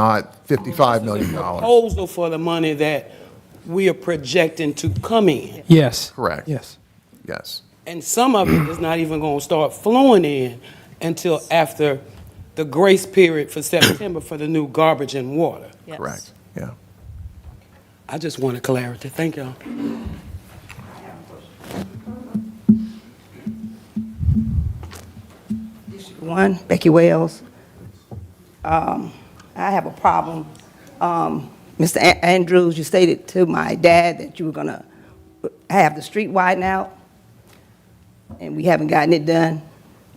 not $55 Oh. million. proposal for the money that we are projecting to come in. Yes. Correct. Yes. Yes. And some of it is not even going to start flowing in until after the grace period for September for the new garbage and water. Yes. Correct. Yeah. I just wanted clarity. Thank y'all. One, Becky Wells. Um, I have a problem. Um, Mr. A- Andrews, you stated to my dad that you were gonna have the street widened out, and we haven't gotten it done.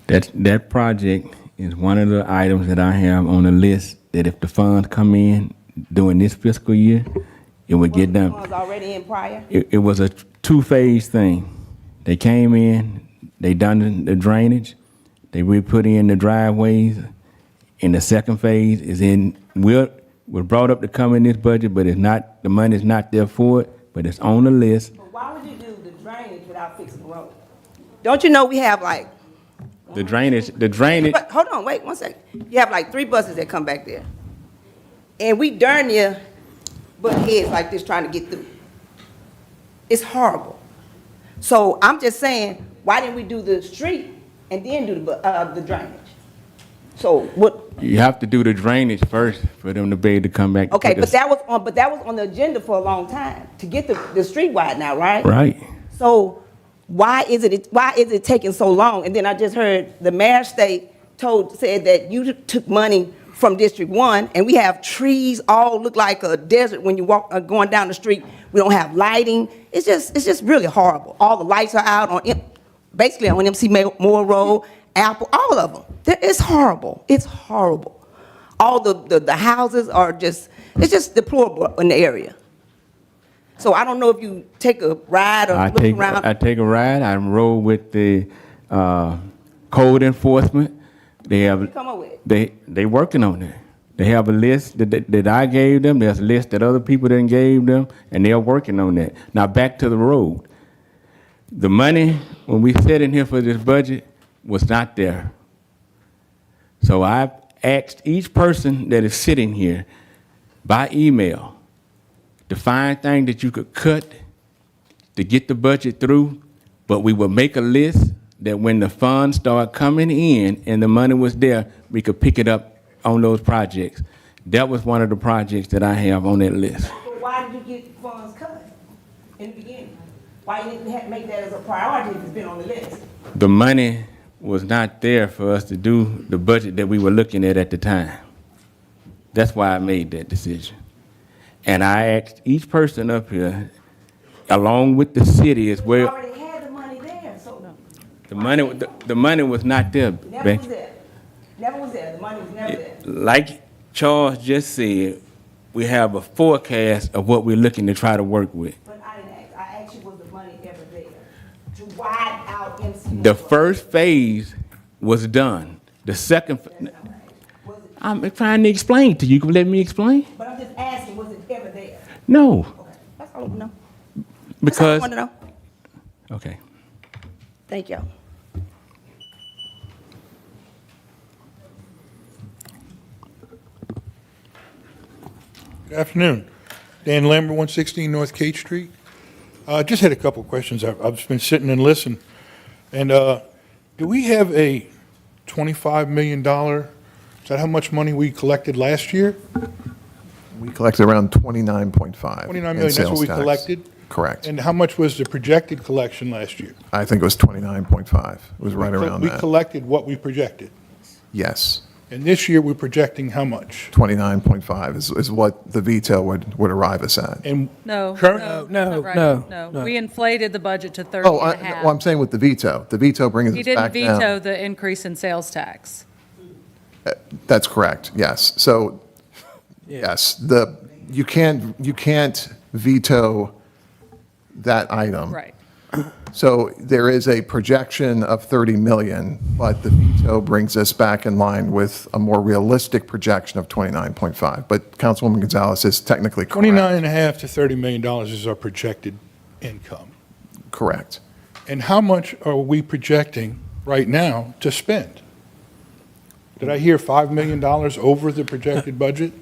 That, that project is one of the items that I have on the list that if the funds come in during this fiscal year, it would get It was done. already in prior. It, it was a two-phase thing. They came in, they done the drainage, they re-put in the driveways, and the second phase is in, we're, we're brought up to come in this budget, but it's not, the money's not there for it, but it's on the list. But why would you do the drainage without fixing the road? Don't you know we have like, The drainage, the drainage, but, hold on, wait, one second. You have like three buses that come back there. And we darn near butt heads like this trying to get through. It's horrible. So I'm just saying, why didn't we do the street and then do the, bu- uh, the drainage? So what, you have to do the drainage first for them to be able to come back. to okay, put but the- that was on, but that was on the agenda for a long time, to get the, the street wide now, right? Right. So why is it, why is it taking so long? And then I just heard the mayor state told, said that you took money from District One, and we have trees all look like a desert when you walk, uh, going down the street. We don't have lighting. It's just, it's just really horrible. All the lights are out on, M- basically on MC Ma- Moore Road, Apple, all of them. There- It's horrible. It's horrible. All the, the, the houses are just, it's just deplorable in the area. So I don't know if you take a ride or I look take, around. I take a ride, I roll with the, uh, code enforcement. They have. come up with? They, they working on it. They have a list that, that- that I gave them, there's a list that other people done gave them, and they're working on that. Now, back to the road. The money, when we sat in here for this budget, was not there. So I've asked each person that is sitting here by email to find things that you could cut to get the budget through, but we would make a list that when the funds start coming in and the money was there, we could pick it up on those projects. That was one of the projects that I have on that list. But why did you get funds cut in the beginning? Why you didn't ha- make that as a priority if it's been on the list? The money was not there for us to do the budget that we were looking at at the time. That's why I made that decision. And I asked each person up here, along with the city as We well, already had the money there, so the money, the, the money was not there, it never Becky. was there. Never was there, the money was never there. like Charles just said, we have a forecast of what we're looking to try to work with. But I didn't ask, I asked you, was the money ever there? To wide out MC. The first phase was done. The second, Was it- I'm trying to explain to you. You can let me explain? But I'm just asking, was it ever there? No, Okay, That's all I want to know. That's all I because, want to know. okay. Thank you. Good Afternoon. Dan Lambert, 116 North Cate Street. Uh, Just had a couple of questions. I've I've just been sitting and listening. And uh, do we have a $25 million, is that how much money we collected last year? We collected around 29.5. 29 in million, that's sales what we tax. collected? Correct. And how much was the projected collection last year? I think it was 29.5. It was right around We that. collected what we projected. Yes. And this year, we're projecting how much? 29.5 is, is what the veto would, would arrive us at. And No. current- no, not right. no, no. No, we inflated the budget to 30 Oh, and I, a half. well, I'm saying with the veto, the veto brings He us didn't back down. veto the increase in sales tax. That's correct, yes. So, yes, the, you can't, you can't veto that item. Right. So there is a projection of 30 million, but the veto brings us back in line with a more realistic projection of 29.5. But Councilwoman Gonzalez is technically correct. 29 and a half to 30 million dollars is our projected income. Correct. And how much are we projecting right now to spend? Did I hear $5 million over the projected budget?